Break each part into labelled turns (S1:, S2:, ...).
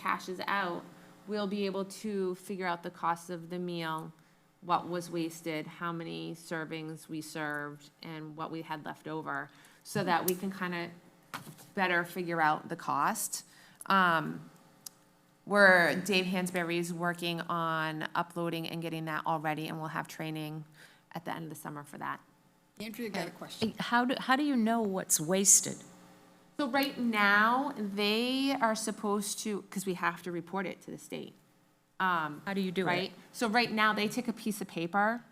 S1: cashes out, we'll be able to figure out the cost of the meal, what was wasted, how many servings we served, and what we had left over, so that we can kind of better figure out the cost. Um, we're, Dave Hansberry's working on uploading and getting that all ready, and we'll have training at the end of the summer for that.
S2: Andrea got a question.
S3: Eh, How do, how do you know what's wasted?
S1: So right now, they are supposed to, because we have to report it to the state,
S3: How do you do it?
S1: right? So right now, they take a piece of paper,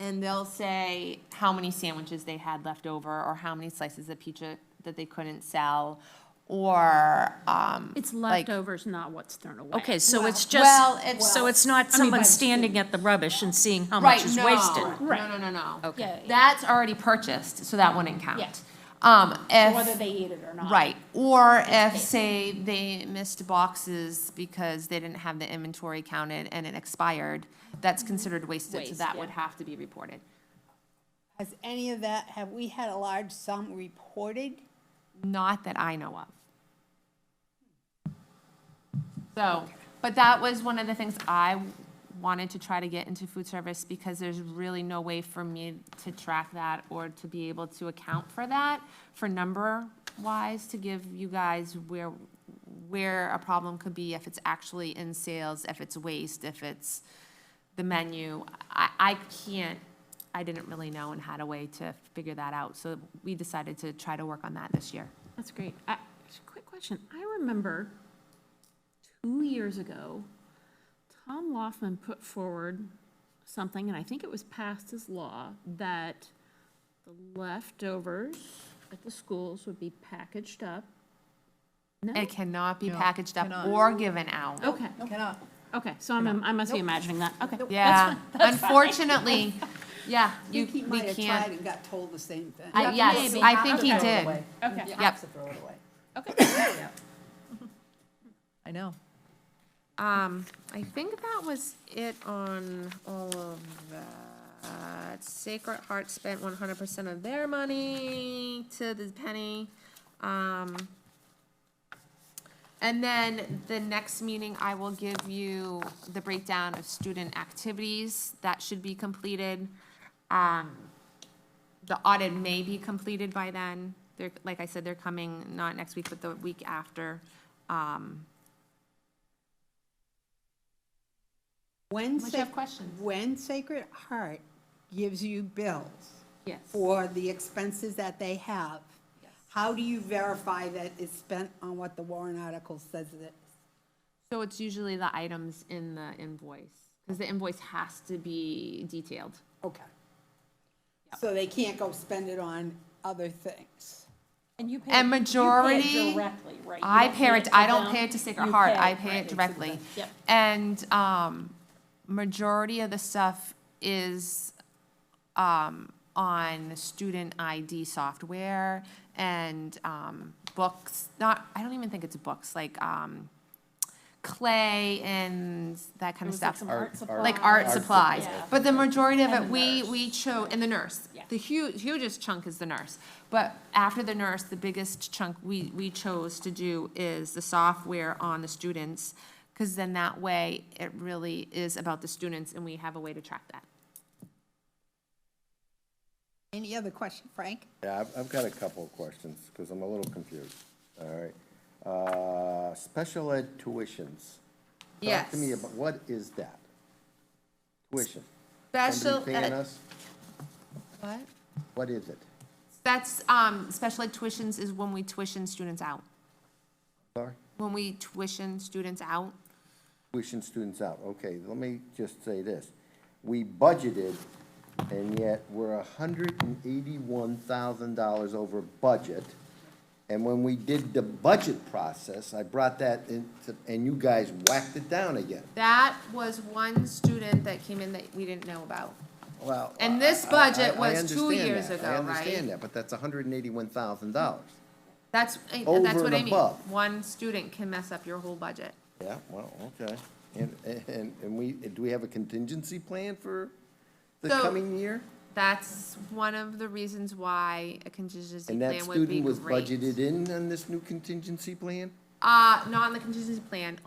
S1: and they'll say how many sandwiches they had left over, or how many slices of pizza that they couldn't sell, or, um,
S4: It's
S1: Like-
S4: leftovers, not what's thrown away.
S3: Okay, so it's
S1: well,
S3: just,
S1: it's-
S3: so it's not
S4: by
S3: someone
S4: the
S3: standing at the rubbish and seeing how
S1: Right,
S3: much is
S1: no.
S3: wasted?
S1: No, no, no, no.
S4: Yeah, yeah.
S1: That's already purchased, so that wouldn't count.
S4: Yeah.
S1: Um, if.
S4: Whether they eat it or not.
S1: Right, or if, say, they missed boxes because they didn't have the inventory counted and it expired, that's considered wasted, so
S4: Waste,
S1: that
S4: yeah.
S1: would have to be reported.
S2: Has any of that, have we had a large sum reported?
S1: Not that I know of. So, but that was one of the things I wanted to try to get into food service because there's really no way for me to track that or to be able to account for that for number wise, to give you guys where, where a problem could be, if it's actually in sales, if it's waste, if it's the menu. I, I can't, I didn't really know and had a way to figure that out, so we decided to try to work on that this year.
S4: That's great. I- Quick question. I remember two years ago, Tom Laughlin put forward something, and I think it was passed as law, that the leftovers at the schools would be packaged up. No?
S1: It cannot be packaged up or given out.
S4: Okay,
S2: Cannot.
S4: okay, so I'm, I must be imagining that. Okay.
S1: Yeah, unfortunately, yeah,
S2: I
S1: you,
S2: think he
S1: we
S2: might have tried
S1: can't.
S2: and got told the same thing.
S1: I- Yes, I think he
S2: Throw it
S1: did.
S2: away.
S4: Okay.
S2: You
S1: Yep.
S2: have to throw it away.
S5: I know.
S1: Um, I think that was it on all of that. Sacred Heart spent one hundred percent of their money to the penny. Um, and then the next meeting, I will give you the breakdown of student activities that should be completed. Um, the audit may be completed by then. They're, like I said, they're coming not next week, but the week after. Um,
S2: When,
S1: Unless you
S2: Sac-
S1: have questions.
S2: when Sacred Heart gives you bills
S4: Yes.
S2: for the expenses that they have, how do you verify that it's spent on what the Warren article says it is?
S1: So it's usually the items in the invoice, because the invoice has to be detailed.
S2: Okay. So they can't go spend it on other things.
S4: And you pay.
S1: And majority,
S4: Directly, right? You
S1: I
S4: don't pay
S1: pay it, I don't
S4: them.
S1: pay it to Sacred
S4: You
S1: Heart,
S4: pay
S1: I
S4: it,
S1: pay
S4: right,
S1: it
S4: to
S1: directly.
S4: them. Yep.
S1: And, um, majority of the stuff is, um, on student ID software and, um, books, not, I don't even think it's books, like, um, clay and that kind of stuff. like art supplies.
S4: Yeah.
S1: But the majority of
S4: And
S1: it,
S4: the
S1: we,
S4: nurse.
S1: we chose, and the nurse.
S4: Yeah.
S1: The hu- hugest chunk is the nurse. But after the nurse, the biggest chunk we, we chose to do is the software on the students. Because then that way, it really is about the students and we have a way to track that.
S2: Any other question, Frank?
S6: Yeah, I've, I've got a couple of questions, because I'm a little confused, all right? Uh, special ed tuitions. Talk to me
S1: Yes.
S6: about, what is that? Tuition.
S1: Special
S6: Somebody paying
S1: ed-
S6: us?
S1: What?
S6: What is it?
S1: That's, um, special ed tuitions is when we tuition students out.
S6: Sorry?
S1: When we tuition students out,
S6: Tuition students out, okay, let me just say this. We budgeted, and yet we're hundred and eighty-one thousand dollars over budget. And when we did the budget process, I brought that in, to- and you guys whacked it down again.
S1: that was one student that came in that we didn't know about.
S6: Well.
S1: And this
S6: I- I-
S1: budget
S6: I
S1: was two
S6: understand
S1: years
S6: that.
S1: ago,
S6: I
S1: right?
S6: understand that, but that's hundred and eighty-one thousand dollars.
S1: That's, eh,
S6: Over
S1: that's what
S6: and
S1: I mean.
S6: above.
S1: One student can mess up your whole budget.
S6: Yeah, well, okay. And, and, and we, do we have a contingency plan for the
S1: So-
S6: coming year?
S1: That's one of the reasons why a contingency
S6: And that
S1: plan would be
S6: student was
S1: great.
S6: budgeted in on this new contingency plan?
S1: Uh, not on the contingency plan,